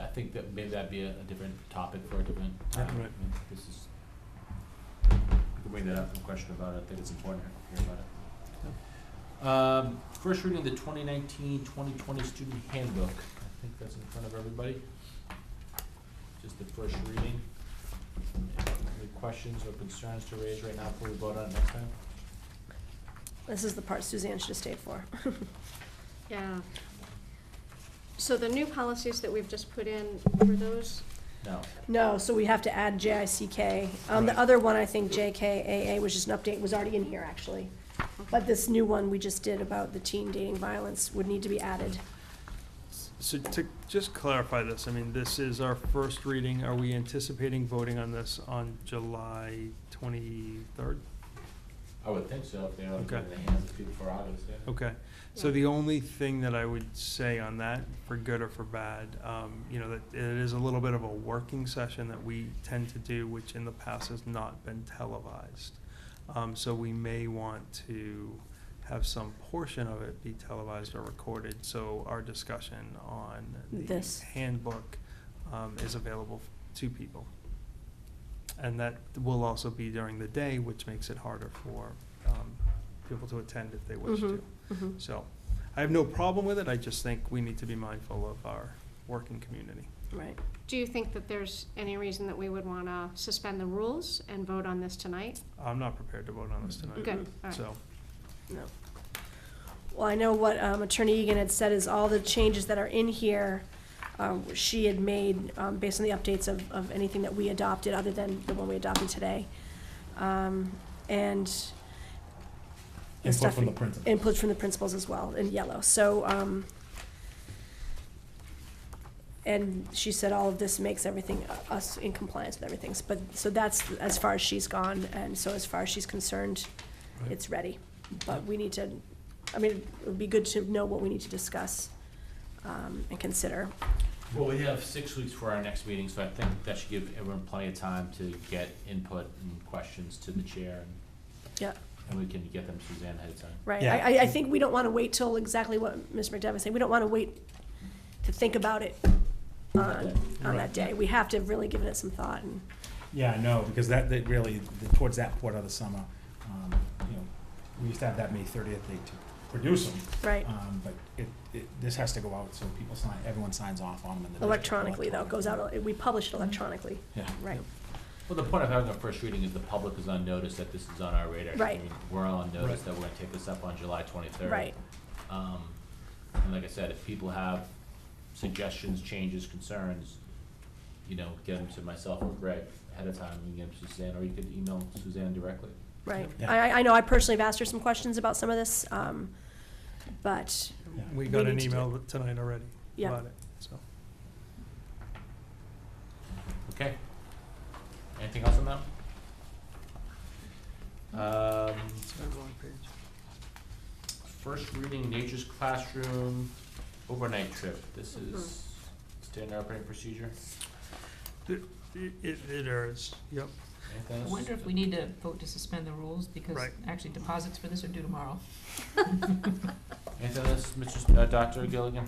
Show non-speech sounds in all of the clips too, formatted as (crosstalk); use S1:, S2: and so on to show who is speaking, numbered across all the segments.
S1: I think that maybe that'd be a, a different topic for a different
S2: Yeah,
S1: time.
S2: right.
S1: I mean, This is, we can bring that up and question about it, I think it's important to hear about it. Um, first reading of the 2019-2020 student handbook, I think that's in front of everybody. Just the first reading. Any questions or concerns to raise right now before we vote on it next time?
S3: This is the part Suzanne should have stayed for.
S4: (laughs) Yeah. So the new policies that we've just put in, were those,
S1: No.
S3: No, so we have to add JICK. Um,
S1: Right.
S3: the other one, I think JKAA, which is an update, was already in here, actually. But this new one we just did about the teen dating violence would need to be added.
S2: So to just clarify this, I mean, this is our first reading. Are we anticipating voting on this on July twenty-third?
S1: I would think so, if they're in
S2: Okay.
S1: the hands of people for August, yeah.
S2: Okay, so
S4: Yeah.
S2: the only thing that I would say on that, for good or for bad, um, you know, that it is a little bit of a working session that we tend to do, which in the past has not been televised. Um, so we may want to have some portion of it be televised or recorded, so our discussion on the
S3: This.
S2: handbook, um, is available to people. And that will also be during the day, which makes it harder for, um, people to attend if they wish to.
S3: Mhm, mhm.
S2: So, I have no problem with it, I just think we need to be mindful of our working community.
S3: Right.
S4: do you think that there's any reason that we would want to suspend the rules and vote on this tonight?
S2: I'm not prepared to vote on this tonight.
S4: Good, all right.
S2: So,
S3: No. Well, I know what um, Attorney Egan had said is all the changes that are in here, um, she had made um, based on the updates of, of anything that we adopted, other than the one we adopted today. Um, And. the
S5: Input
S3: stuff-
S5: from the principals.
S3: Input from the principals as well, in yellow, so. um, And she said all of this makes everything, uh, us in compliance with everything, but, so that's as far as she's gone, and so as far as she's concerned,
S2: Right.
S3: it's ready. But we need to, I mean, it would be good to know what we need to discuss um, and consider.
S1: Well, we have six weeks for our next meeting, so I think that should give everyone plenty of time to get input and questions to the chair, and-
S3: Yeah,
S1: and we can get them to Suzanne ahead of time.
S3: right.
S5: Yeah.
S3: I, I- I think we don't want to wait till exactly what Ms. McDevitt said. We don't want to wait to think about it on, on that
S5: Right.
S3: day. We have to have really given it some thought and,
S5: Yeah, no, because that, that really, the- towards that part of the summer, um, you know, we used to have that May thirtieth date to produce them.
S3: right,
S5: Um, but it, it, this has to go out, so people sign, everyone signs off on them in the. district
S3: electronically though, it goes out,
S5: electronically.
S3: we publish it electronically,
S5: Yeah.
S3: right.
S1: Well, the point of having a first reading is the public is on notice that this is on our radar. I
S3: Right.
S1: mean, We're all on notice that we're gonna take this up on July twenty-third.
S3: Right.
S1: Um, and like I said, if people have suggestions, changes, concerns, you know, get them to myself or Greg ahead of time, you can get them to Suzanne, or you could email Suzanne directly.
S3: Right.
S5: Yeah.
S3: I, I- I know I personally have asked her some questions about some of this, um, but,
S5: Yeah.
S2: we
S3: We
S2: got
S3: need
S2: an
S3: to do
S2: email tonight already
S3: Yeah.
S2: about it, so.
S1: Okay. Anything else on that? Um, first reading Nature's Classroom overnight trip. This
S3: Mm-hmm.
S1: is standard operating procedure.
S2: It, it it is, yep.
S1: Anything
S6: I
S1: else?
S6: wonder if we need to vote to suspend the rules, because
S2: Right.
S6: actually deposits for this are due tomorrow.
S1: Anything else, Mr. Uh, Dr. Gilligan?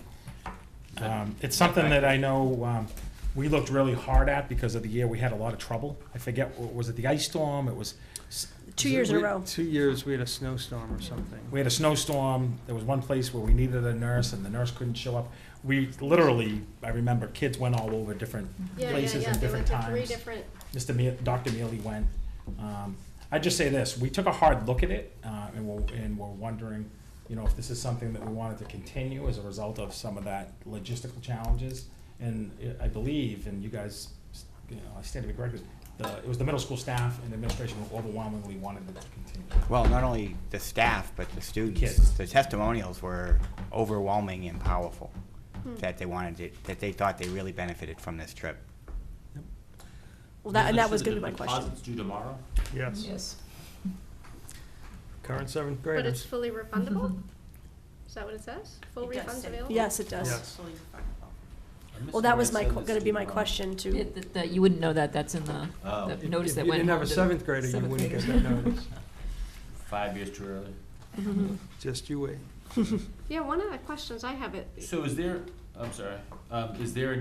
S5: Um, it's something that I know, um, we looked really hard at because of the year, we had a lot of trouble. I forget, wa- was it the ice storm? It was,
S3: two years in a
S2: We-
S3: row.
S2: Two years, we had a snowstorm or something.
S5: we had a snowstorm, there was one place where we needed a nurse and the nurse couldn't show up. We literally, I remember, kids went all over different places and different times.
S4: They went to three different,
S5: Mr. Me- Dr. Mealy went. Um, I'd just say this, we took a hard look at it, uh, and we're, and we're wondering, you know, if this is something that we wanted to continue as a result of some of that logistical challenges. And I I believe, and you guys, you know, I stand to be corrected, the, it was the middle school staff and administration who overwhelmingly wanted it to continue.
S7: Well, not only the staff, but the students.
S5: Kids.
S7: The testimonials were overwhelming and powerful, that they wanted it, that they thought they really benefited from this trip.
S3: Well, that, and that
S1: Understood
S3: was gonna be
S1: the
S3: my question.
S1: Deposits due tomorrow?
S2: Yes,
S6: Yes.
S2: current seventh
S4: but it's
S2: graders.
S4: fully refundable? Is that what it says? Full
S8: It does
S4: refunds
S8: say-
S4: available?
S3: Yes, it does.
S2: Yes,
S8: fully refundable.
S1: I missed
S3: Well, that
S1: where
S3: was
S1: it
S3: my,
S1: said
S3: que-
S1: this
S3: gonna
S1: due
S3: be my
S1: tomorrow.
S3: question to,
S6: (laughs) It- that- that- you wouldn't know that, that's in the,
S1: Oh,
S2: If-
S6: the notice
S2: if
S6: that
S2: you
S6: went
S2: didn't have a
S6: home to
S2: seventh grader, you
S6: seventh
S2: wouldn't get
S6: graders.
S2: that notice.
S1: five years too early.
S2: (laughs) Just you wait.
S4: Yeah, one of the questions I have, it,
S1: So is there, I'm sorry, um, is there a